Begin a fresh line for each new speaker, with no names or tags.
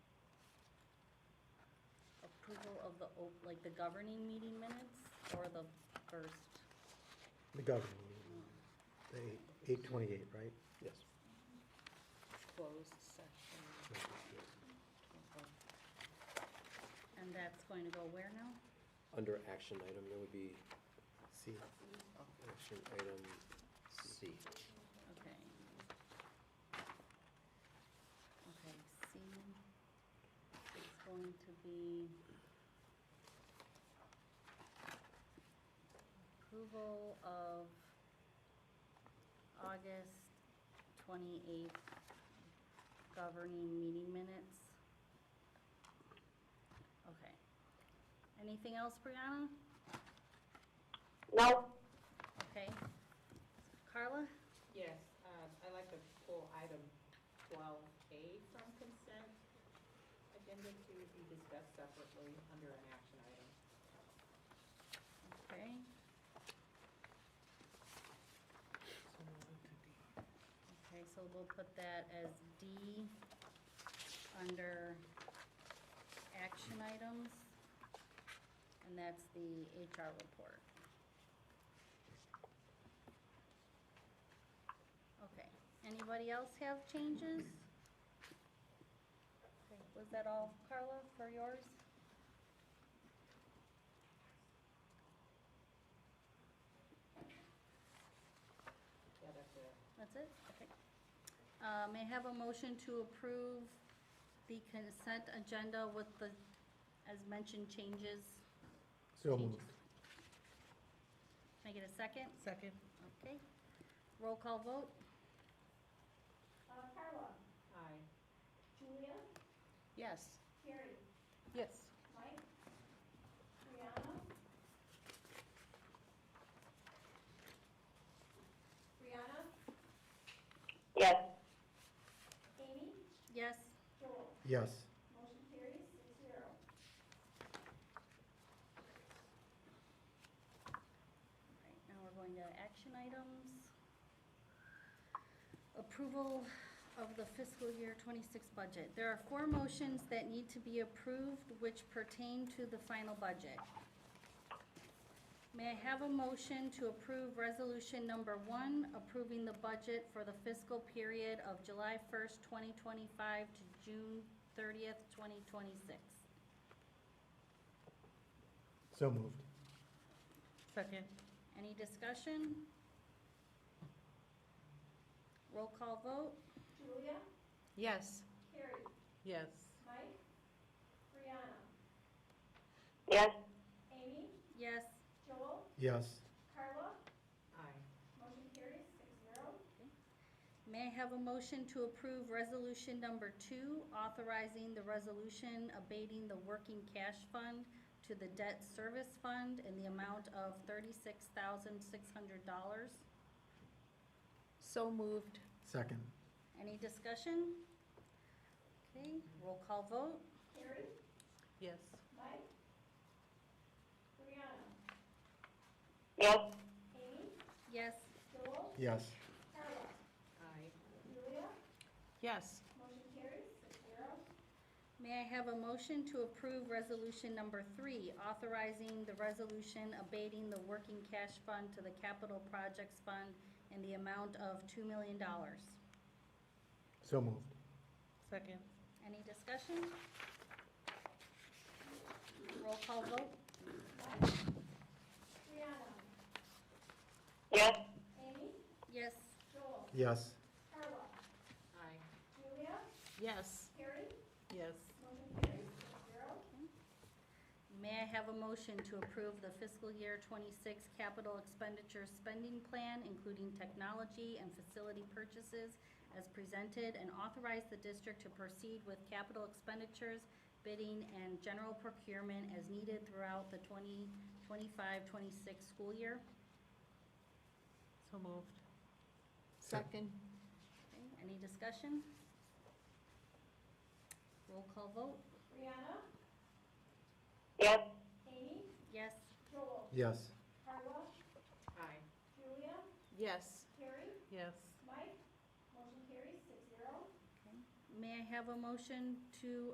approval of the, op- like, the governing meeting minutes or the first?
The governing meeting, the eight twenty-eight, right? Yes.
Closed section. And that's going to go where now?
Under action item, there would be
See,
action item C.
Okay. Okay, C It's going to be approval of August twenty-eighth governing meeting minutes. Okay. Anything else, Brianna?
No,
Okay. Carla?
Yes, um, I'd like to pull item twelve A from consent agenda to be discussed separately under an action item.
Okay. Okay, so we'll put that as D under action items. And that's the HR report. Okay, anybody else have changes? Okay, Was that all, Carla, for yours?
Yeah, that's it.
That's it? Okay. Uh, May I have a motion to approve the consent agenda with the, as mentioned, changes?
so
Changes.
moved.
Can I get a second?
Second.
Okay. Roll call vote?
uh, Carla,
Aye.
Julia,
Yes.
Carrie,
Yes.
Mike, Brianna. Brianna,
Yes.
Amy,
Yes.
Joel,
Yes,
motion carries six zero.
All right, now we're going to action items. Approval of the fiscal year 26 budget. There are four motions that need to be approved which pertain to the final budget. May I have a motion to approve resolution number one, approving the budget for the fiscal period of July 1st, 2025 to June 30th, 2026?
so moved.
Second.
Any discussion? Roll call vote?
Julia,
Yes.
Carrie,
Yes.
Mike, Brianna,
Yes.
Amy,
Yes.
Joel,
Yes,
Carla,
Aye.
motion carries six zero.
May I have a motion to approve resolution number two, authorizing the resolution abating the working cash fund to the debt service fund in the amount of thirty-six thousand six hundred dollars?
So moved.
second.
Any discussion? Okay, roll call vote?
Carrie,
Yes.
Mike, Brianna,
Yes.
Amy,
Yes.
Joel,
Yes,
Carla,
Aye.
Julia,
Yes.
motion carries six zero.
May I have a motion to approve resolution number three, authorizing the resolution abating the working cash fund to the capital projects fund in the amount of two million dollars?
so moved.
Second.
Any discussion? Roll call vote?
Mike, Brianna,
Yes.
Amy,
Yes.
Joel,
Yes,
Carla,
Aye.
Julia,
Yes.
Carrie,
Yes.
motion carries six zero.
May I have a motion to approve the fiscal year 26 capital expenditure spending plan, including technology and facility purchases as presented, and authorize the district to proceed with capital expenditures, bidding, and general procurement as needed throughout the 2025-26 school year?
So moved.
Second.
Okay, Any discussion? Roll call vote?
Brianna,
Yes.
Amy,
Yes.
Joel,
yes,
Carla,
Aye.
Julia,
Yes.
Carrie,
Yes.
Mike, motion carries six zero.
May I have a motion to